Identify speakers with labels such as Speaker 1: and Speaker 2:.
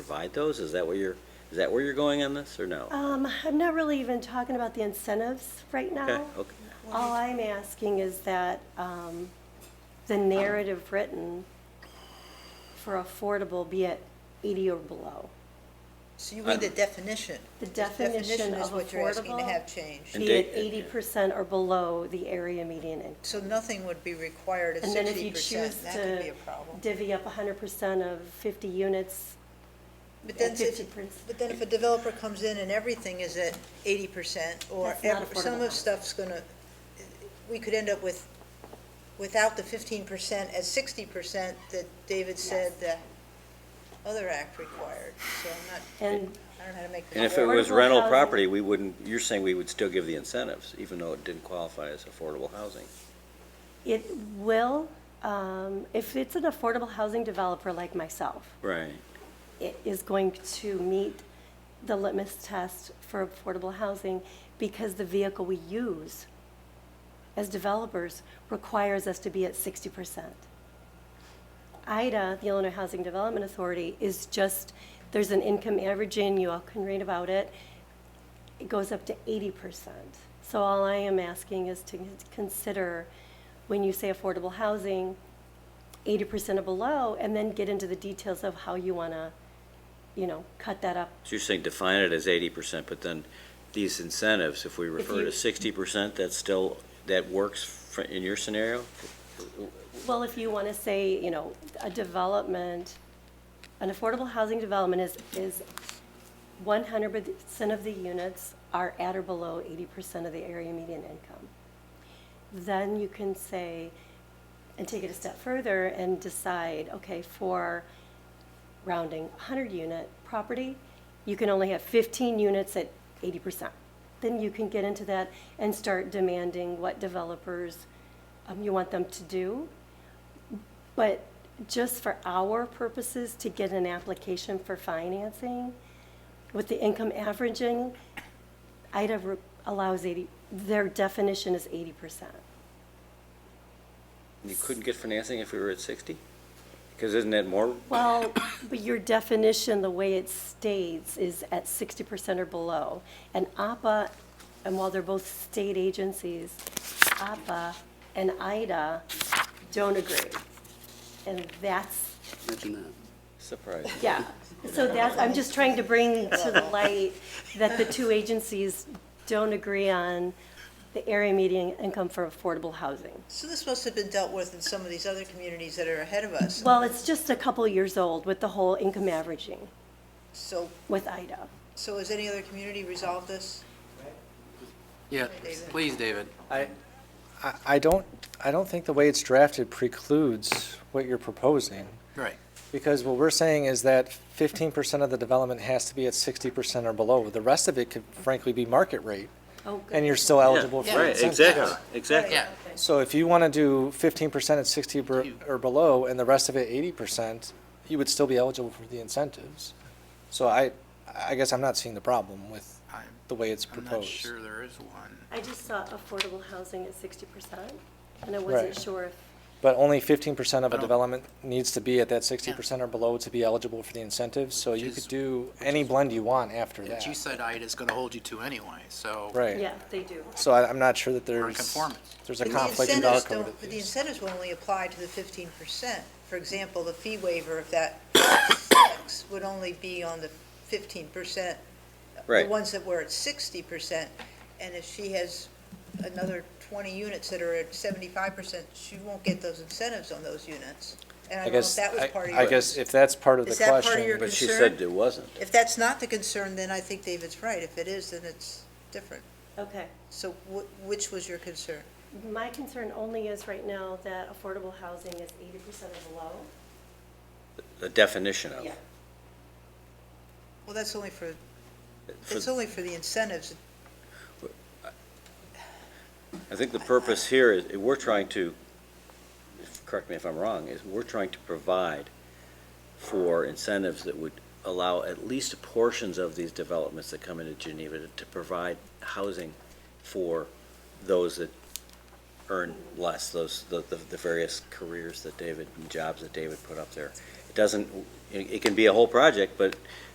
Speaker 1: provide those? Is that what you're, is that where you're going on this, or no?
Speaker 2: Um, I'm not really even talking about the incentives right now.
Speaker 1: Okay, okay.
Speaker 2: All I'm asking is that, um, the narrative written for affordable be at eighty or below.
Speaker 3: So you need a definition.
Speaker 2: The
Speaker 3: This
Speaker 2: definition
Speaker 3: is
Speaker 2: of
Speaker 3: what you're asking to
Speaker 2: affordable.
Speaker 3: have changed.
Speaker 1: And
Speaker 2: Be at
Speaker 1: da-
Speaker 2: eighty percent or below the area median income.
Speaker 3: So nothing would be required at
Speaker 2: And then if you
Speaker 3: sixty
Speaker 2: choose
Speaker 3: percent, that could be
Speaker 2: to
Speaker 3: a problem.
Speaker 2: divvy up hundred percent of fifty units,
Speaker 3: But then,
Speaker 2: at
Speaker 3: if-
Speaker 2: 50%.
Speaker 3: but then if a developer comes in and everything is at eighty percent, or
Speaker 2: That's not
Speaker 3: ev-
Speaker 2: affordable
Speaker 3: some of
Speaker 2: housing.
Speaker 3: stuff's gonna, we could end up with, without the fifteen percent, at sixty percent that David said the other act required, so I'm not,
Speaker 2: and
Speaker 3: I don't know how to make
Speaker 1: And
Speaker 3: this
Speaker 1: if it
Speaker 3: work.
Speaker 1: was
Speaker 2: Affordable
Speaker 1: rental
Speaker 2: housing.
Speaker 1: property, we wouldn't, you're saying we would still give the incentives, even though it didn't qualify as affordable housing?
Speaker 2: it will, um, if it's an affordable housing developer like myself,
Speaker 1: Right.
Speaker 2: it is going to meet the litmus test for affordable housing because the vehicle we use as developers requires us to be at 60%. IDA, the Illinois Housing Development Authority, is just, there's an income averaging, you all can read about it. It goes up to 80%. So all I am asking is to consider, when you say affordable housing, 80% or below, and then get into the details of how you want to, you know, cut that up.
Speaker 1: So you're saying define it as eighty percent, but then these incentives, if we refer
Speaker 2: you-
Speaker 1: to sixty percent, that's still, that works fr- in your scenario?
Speaker 2: Well, if you want to say, you know, a development, an affordable housing development is, is 100% of the units are at or below 80% of the area median income. Then you can say, and take it a step further and decide, okay, for rounding 100-unit property, you can only have 15 units at 80%. Then you can get into that and start demanding what developers um, you want them to do. But just for our purposes, to get an application for financing, with the income averaging, IDA re- allows 80, their definition is 80%.
Speaker 1: You couldn't get financing if we were at sixty? Because isn't that more,
Speaker 2: Well, but your definition, the way it states, is at 60% or below. And APA, and while they're both state agencies, APA and IDA don't agree. And that's
Speaker 4: Imagine that.
Speaker 1: surprising?
Speaker 2: Yeah, so that's, I'm just trying to bring to the light that the two agencies don't agree on the area median income for affordable housing.
Speaker 3: So this must have been dealt with in some of these other communities that are ahead of us,
Speaker 2: Well, it's just a couple years old with the whole income averaging
Speaker 3: so,
Speaker 2: with IDA.
Speaker 3: so has any other community resolved this?
Speaker 4: Yeah,
Speaker 3: David.
Speaker 4: please, David.
Speaker 5: I, I- I don't, I don't think the way it's drafted precludes what you're proposing,
Speaker 4: Right.
Speaker 5: because what we're saying is that fifteen percent of the development has to be at sixty percent or below. The rest of it could frankly be market rate,
Speaker 2: Oh,
Speaker 5: and
Speaker 2: good.
Speaker 5: you're still eligible for
Speaker 4: Right,
Speaker 5: incentives.
Speaker 1: exactly.
Speaker 4: Yeah,
Speaker 5: So if you want to do fifteen percent at sixty per- or below, and the rest of it eighty percent, you would still be eligible for the incentives. So I, I guess I'm not seeing the problem with
Speaker 4: I'm-
Speaker 5: the way it's
Speaker 4: I'm
Speaker 5: proposed.
Speaker 4: not sure there is one.
Speaker 2: I just saw affordable housing at sixty percent, and I wasn't
Speaker 5: Right.
Speaker 2: sure if,
Speaker 5: But only fifteen percent of
Speaker 4: I
Speaker 5: a
Speaker 4: don't-
Speaker 5: development needs to be at that sixty percent or below to be eligible for the incentives, so you
Speaker 4: Which is-
Speaker 5: could do any blend you want after
Speaker 4: But you
Speaker 5: that.
Speaker 4: said IDA's gonna hold you to anyway, so.
Speaker 5: Right,
Speaker 2: yeah, they do.
Speaker 5: so I, I'm not sure that there's.
Speaker 4: Nonconformance.
Speaker 5: There's
Speaker 3: But
Speaker 5: a
Speaker 3: the
Speaker 5: conflict of
Speaker 3: incentives
Speaker 5: outcome
Speaker 3: don't-
Speaker 5: with
Speaker 3: The
Speaker 5: these.
Speaker 3: incentives will only apply to the fifteen percent. For example, the fee waiver of that tax would only be on the fifteen percent.
Speaker 1: Right.
Speaker 3: The ones that were at sixty percent, and if she has another twenty units that are at seventy-five percent, she won't get those incentives on those units. And I
Speaker 5: I
Speaker 3: don't know if
Speaker 5: guess,
Speaker 3: that was
Speaker 5: I,
Speaker 3: part of your.
Speaker 5: I guess if that's part of the
Speaker 3: Is that part of
Speaker 5: question.
Speaker 3: your
Speaker 1: But she
Speaker 3: Concern?
Speaker 1: said it wasn't.
Speaker 3: If that's not the concern, then I think David's right. If it is, then it's different.
Speaker 2: Okay.
Speaker 3: So wh- which was your concern?
Speaker 2: My concern only is right now that affordable housing is eighty percent or below.
Speaker 1: The definition
Speaker 5: Oh.
Speaker 1: of, it.
Speaker 3: Well, that's only for,
Speaker 1: For-
Speaker 3: it's only for the incentives.
Speaker 1: I think the purpose here is, we're trying to, if- correct me if I'm wrong, is we're trying to provide for incentives that would allow at least portions of these developments that come into Geneva to- to provide housing for those that earn less, those, the, the the various careers that David, and jobs that David put up there. It doesn't, it it can be a whole project, but